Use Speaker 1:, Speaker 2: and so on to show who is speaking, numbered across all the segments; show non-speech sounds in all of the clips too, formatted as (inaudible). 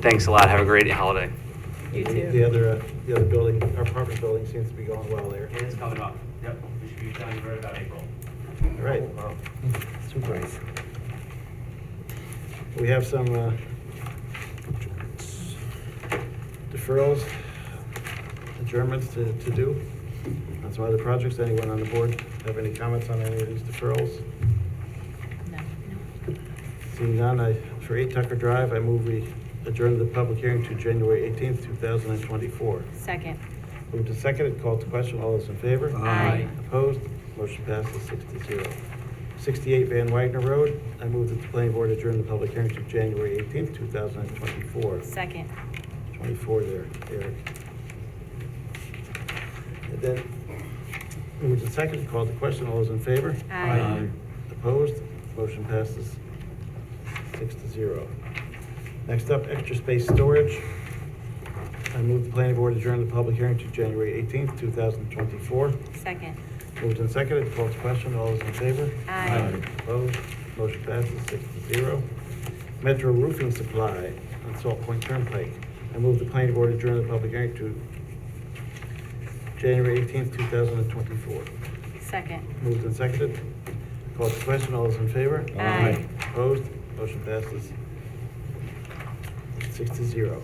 Speaker 1: Thanks a lot. Have a great holiday.
Speaker 2: You
Speaker 3: The-
Speaker 2: too.
Speaker 3: The other, uh, the other building, our apartment building seems to be going well there.
Speaker 4: It is coming up. Yep, we should be telling you right about April.
Speaker 3: All right.
Speaker 5: Surprise.
Speaker 3: We have some uh, deferrals, adjournments to, to do on some other projects. Anyone on the board have any comments on any of these deferrals?
Speaker 2: No.
Speaker 3: Seeing none, I, for 8 Tucker Drive, I move we adjourn the public hearing to January 18th, 2024.
Speaker 2: Second.
Speaker 3: Moved and seconded, called to question, all those in favor?
Speaker 2: Aye.
Speaker 3: Opposed? Motion passes six to zero. 68 Van Wagner Road, I move that the planning board adjourn the public hearing to January 18th, 2024.
Speaker 2: Second.
Speaker 3: 24 there, Eric. And then, moved and seconded, called to question, all those in favor?
Speaker 2: Aye. Aye.
Speaker 3: Opposed? Motion passes six to zero. Next up, extra space storage. I move the planning board adjourn the public hearing to January 18th, 2024.
Speaker 2: Second.
Speaker 3: Moved and seconded, called to question, all those in favor?
Speaker 2: Aye. Aye.
Speaker 3: Opposed, motion passes six to zero. Metro Roofing Supply on Salt Point Turnpike. I move the planning board adjourn the public hearing to January eighteenth, two thousand and twenty-four.
Speaker 2: Second.
Speaker 3: Moved and seconded, called to question, all those in favor?
Speaker 2: Aye.
Speaker 3: Opposed, motion passes six to zero.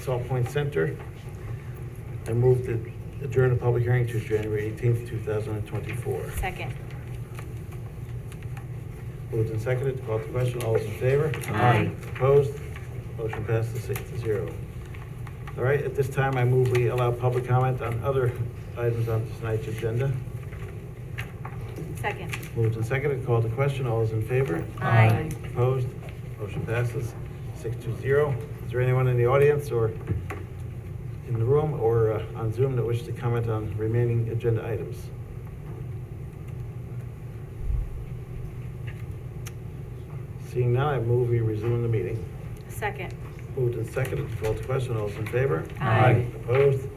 Speaker 3: Salt Point Center, I move to adjourn the public hearing to January 18th, 2024.
Speaker 2: Second.
Speaker 3: Moved and seconded, called to question, all those in favor?
Speaker 2: Aye.
Speaker 3: Opposed? Motion passes six to zero. All right, at this time, I move we allow public comment on other items on tonight's agenda.
Speaker 2: Second.
Speaker 3: Moved and seconded, called to question, all those in favor?
Speaker 2: Aye.
Speaker 3: Opposed? Motion passes six to zero. Is there anyone in the audience or in the room or uh, on Zoom that wishes to comment on remaining agenda items? Seeing none, I move we resume the meeting.
Speaker 2: Second.
Speaker 3: Moved and seconded, called to question, all those in favor?
Speaker 2: Aye.
Speaker 3: Opposed?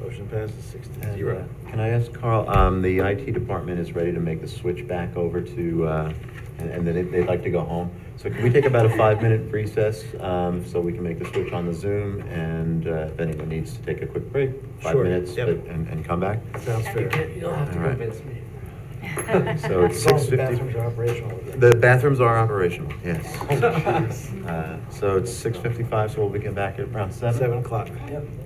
Speaker 3: Motion passes six to
Speaker 5: And,
Speaker 3: zero.
Speaker 5: uh, Can I ask Carl, um, the IT department is ready to make the switch back over to, uh, and, and then they'd like to go home. So can we take about a five-minute recess, um, so we can make the switch on the Zoom? And, uh, if anyone needs to take a quick break, five
Speaker 3: Sure,
Speaker 5: minutes,
Speaker 3: yep.
Speaker 5: but- and, and come back?
Speaker 3: Sounds fair.
Speaker 4: You don't have to
Speaker 5: All right.
Speaker 4: convince me.
Speaker 5: (laughs) (laughs) So
Speaker 3: As
Speaker 5: it's
Speaker 3: long as the
Speaker 5: 6:50.
Speaker 3: bathrooms are operational. again.
Speaker 5: The bathrooms are operational, yes.
Speaker 3: Jeez.
Speaker 5: Uh, so it's six fifty-five, so we'll be getting back at around
Speaker 3: (laughs)
Speaker 5: seven?
Speaker 3: Seven o'clock.
Speaker 4: Yep.